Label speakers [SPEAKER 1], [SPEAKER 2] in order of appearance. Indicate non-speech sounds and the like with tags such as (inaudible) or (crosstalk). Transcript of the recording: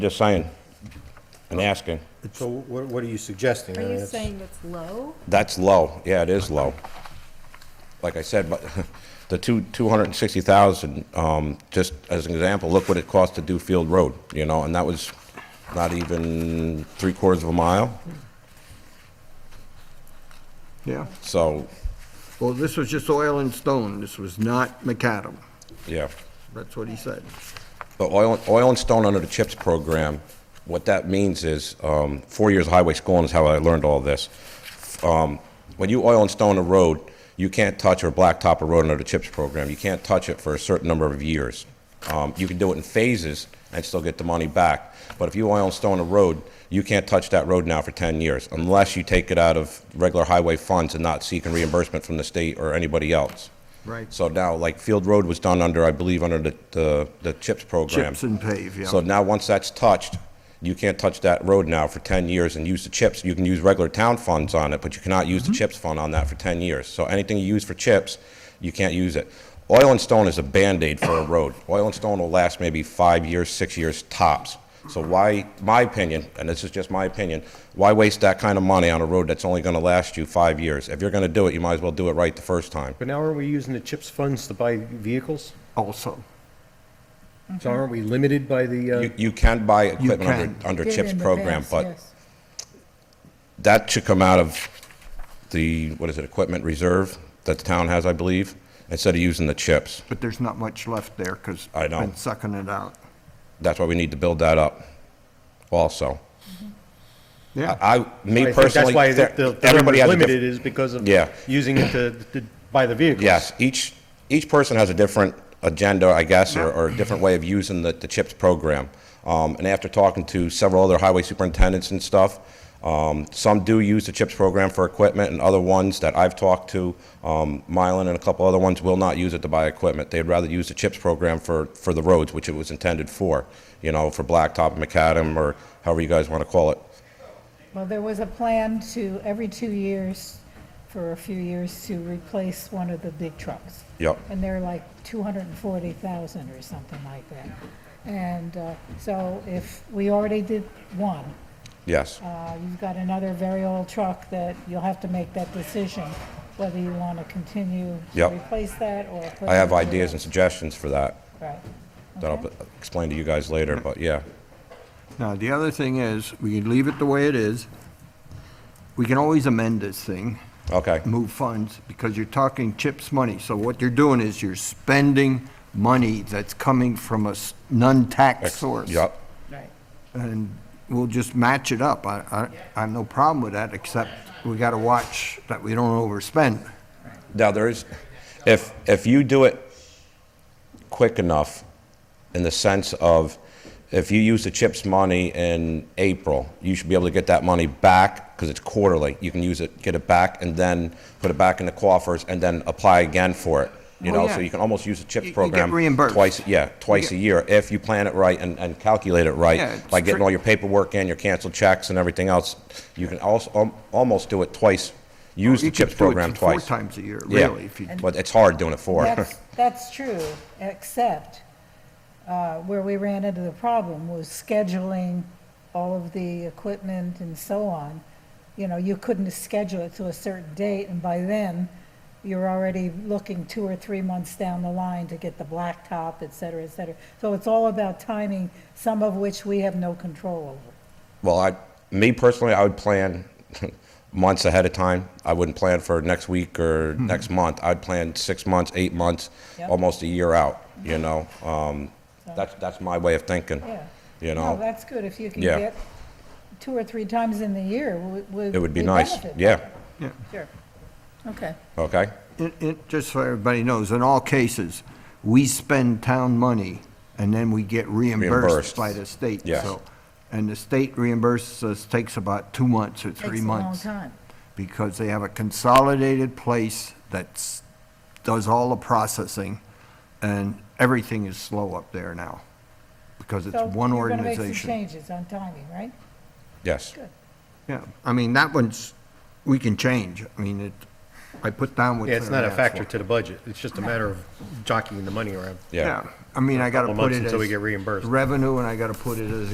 [SPEAKER 1] Just saying, and asking.
[SPEAKER 2] So what, what are you suggesting?
[SPEAKER 3] Are
[SPEAKER 2] I mean,
[SPEAKER 3] you
[SPEAKER 2] it's-
[SPEAKER 3] saying it's low?
[SPEAKER 1] That's low, yeah, it is low. Like I said, but (laughs) the two, 260,000, um, just as an example, look what it cost to do Field Road, you know, and that was not even three quarters of a mile,
[SPEAKER 4] Yeah,
[SPEAKER 1] so,
[SPEAKER 4] well, this was just oil and stone, this was not macadam,
[SPEAKER 1] yeah.
[SPEAKER 4] that's what he said.
[SPEAKER 1] The oil, oil and stone under the CHIPS program, what that means is, um, four years of highway schooling is how I learned all this. Um, when you oil and stone a road, you can't touch or blacktop a road under the CHIPS program. You can't touch it for a certain number of years. Um, you can do it in phases and still get the money back. But if you oil and stone a road, you can't touch that road now for 10 years unless you take it out of regular highway funds and not seeking reimbursement from the state or anybody else.
[SPEAKER 4] Right.
[SPEAKER 1] So now, like Field Road was done under, I believe, under the, the, the CHIPS program.
[SPEAKER 4] Chips and pave, yeah.
[SPEAKER 1] So now, once that's touched, you can't touch that road now for 10 years and use the CHIPS. You can use regular town funds on it, but you cannot use
[SPEAKER 4] Mm-hmm.
[SPEAKER 1] the CHIPS fund on that for 10 years. So anything you use for CHIPS, you can't use it. Oil and stone is a Band-Aid for a road. Oil and stone will last maybe five years, six years tops. So why, my opinion, and this is just my opinion, why waste that kind of money on a road that's only going to last you five years? If you're going to do it, you might as well do it right the first time.
[SPEAKER 2] But now aren't we using the CHIPS funds to buy vehicles?
[SPEAKER 4] Also,
[SPEAKER 3] Mm-hmm.
[SPEAKER 2] So aren't we limited by the, uh,
[SPEAKER 1] You, you can buy equipment
[SPEAKER 4] can.
[SPEAKER 1] under, under
[SPEAKER 3] Did
[SPEAKER 1] CHIPS
[SPEAKER 3] in the
[SPEAKER 1] program,
[SPEAKER 3] past,
[SPEAKER 1] but
[SPEAKER 3] yes.
[SPEAKER 1] that should come out of the, what is it, equipment reserve that the town has, I believe, instead of using the CHIPS.
[SPEAKER 4] but there's not much left there, because
[SPEAKER 1] I know.
[SPEAKER 4] been sucking it out.
[SPEAKER 1] That's why we need to build that up also.
[SPEAKER 4] Yeah,
[SPEAKER 1] I, me
[SPEAKER 2] I think that's
[SPEAKER 1] personally,
[SPEAKER 2] why the, the
[SPEAKER 1] everybody
[SPEAKER 2] number's
[SPEAKER 1] has a different.
[SPEAKER 2] limited is because of
[SPEAKER 1] Yeah.
[SPEAKER 2] using it to, to buy the vehicles.
[SPEAKER 1] Yes, each, each person has a different agenda, I guess, or, or a different way of using the, the CHIPS program. Um, and after talking to several other highway superintendents and stuff, um, some do use the CHIPS program for equipment, and other ones that I've talked to, um, Mylan and a couple other ones, will not use it to buy equipment. They'd rather use the CHIPS program for, for the roads, which it was intended for, you know, for blacktop, macadam, or however you guys want to call it.
[SPEAKER 3] Well, there was a plan to, every two years, for a few years, to replace one of the big trucks.
[SPEAKER 1] Yep.
[SPEAKER 3] And they're like 240,000 or something like that. And uh, so if we already did one,
[SPEAKER 1] Yes.
[SPEAKER 3] uh, you've got another very old truck that you'll have to make that decision whether you want to continue to
[SPEAKER 1] Yep.
[SPEAKER 3] replace that or. put
[SPEAKER 1] I have
[SPEAKER 3] it in.
[SPEAKER 1] ideas and suggestions for that,
[SPEAKER 3] Right.
[SPEAKER 1] that I'll p- explain to you guys later, but yeah.
[SPEAKER 4] now, the other thing is, we can leave it the way it is. We can always amend this thing,
[SPEAKER 1] Okay.
[SPEAKER 4] move funds, because you're talking CHIPS money. So what you're doing is you're spending money that's coming from a s- non-tax source.
[SPEAKER 1] Yep.
[SPEAKER 3] Right.
[SPEAKER 4] and we'll just match it up. I, I, I have no problem with that, except we gotta watch that we don't overspend.
[SPEAKER 1] Now, there is, if, if you do it quick enough, in the sense of, if you use the CHIPS money in April, you should be able to get that money back, because it's quarterly. You can use it, get it back, and then put it back in the coffers, and then apply again for it. You
[SPEAKER 4] Oh,
[SPEAKER 1] know,
[SPEAKER 4] yeah.
[SPEAKER 1] so you can almost use the
[SPEAKER 4] You-
[SPEAKER 1] CHIPS
[SPEAKER 4] you get
[SPEAKER 1] program.
[SPEAKER 4] reimbursed.
[SPEAKER 1] Twice, yeah, twice a
[SPEAKER 4] get-
[SPEAKER 1] year, if you plan it right and, and calculate it right.
[SPEAKER 4] Yeah, it's
[SPEAKER 1] By getting
[SPEAKER 4] tri-
[SPEAKER 1] all your paperwork in, your canceled checks and everything else. You can also, al- almost do it twice, use the
[SPEAKER 4] You could
[SPEAKER 1] CHIPS
[SPEAKER 4] do it
[SPEAKER 1] program
[SPEAKER 4] Four
[SPEAKER 1] twice.
[SPEAKER 4] times a year,
[SPEAKER 1] Yeah,
[SPEAKER 4] really, if you,
[SPEAKER 1] but it's hard doing it four.
[SPEAKER 3] That's, that's true, except uh, where we ran into the problem was scheduling all of the equipment and so on. You know, you couldn't schedule it to a certain date, and by then, you're already looking two or three months down the line to get the blacktop, et cetera, et cetera. So it's all about timing, some of which we have no control over.
[SPEAKER 1] (laughs) Well, I, me personally, I would plan (laughs) months ahead of time. I wouldn't plan for next week or next month. I'd plan six months, eight months,
[SPEAKER 3] Hmm. Yep.
[SPEAKER 1] almost a year out, you know? Um, that's, that's my way of thinking,
[SPEAKER 3] Yeah.
[SPEAKER 1] you
[SPEAKER 3] No,
[SPEAKER 1] know?
[SPEAKER 3] that's good, if you can
[SPEAKER 1] Yeah.
[SPEAKER 3] get two or three times in the year, we- we.
[SPEAKER 1] It would be
[SPEAKER 3] we
[SPEAKER 1] nice,
[SPEAKER 3] benefit.
[SPEAKER 1] yeah,
[SPEAKER 4] yeah.
[SPEAKER 3] Sure, okay.
[SPEAKER 1] okay?
[SPEAKER 4] It, it, just so everybody knows, in all cases, we spend town money and then we get
[SPEAKER 1] Reimbursed.
[SPEAKER 4] reimbursed by the state.
[SPEAKER 1] Yes.
[SPEAKER 4] So, And the state reimburses us, takes about two months or three months.
[SPEAKER 3] Takes a long time.
[SPEAKER 4] because they have a consolidated place that's, does all the processing, and everything is slow up there now, because it's
[SPEAKER 3] So
[SPEAKER 4] one
[SPEAKER 3] you're gonna make some
[SPEAKER 4] organization.
[SPEAKER 3] changes on timing, right?
[SPEAKER 1] Yes.
[SPEAKER 3] Good.
[SPEAKER 4] Yeah, I mean, that one's, we can change, I mean, it, I put down what.
[SPEAKER 2] Yeah, it's
[SPEAKER 4] Claire
[SPEAKER 2] not a
[SPEAKER 4] asked
[SPEAKER 2] factor
[SPEAKER 4] for.
[SPEAKER 2] to the budget. It's just a matter of jockeying the money around.
[SPEAKER 1] Yeah.
[SPEAKER 4] I mean, I gotta
[SPEAKER 2] Couple
[SPEAKER 4] put
[SPEAKER 2] months
[SPEAKER 4] it
[SPEAKER 2] until we
[SPEAKER 4] as
[SPEAKER 2] get reimbursed.
[SPEAKER 4] Revenue, and I gotta put it as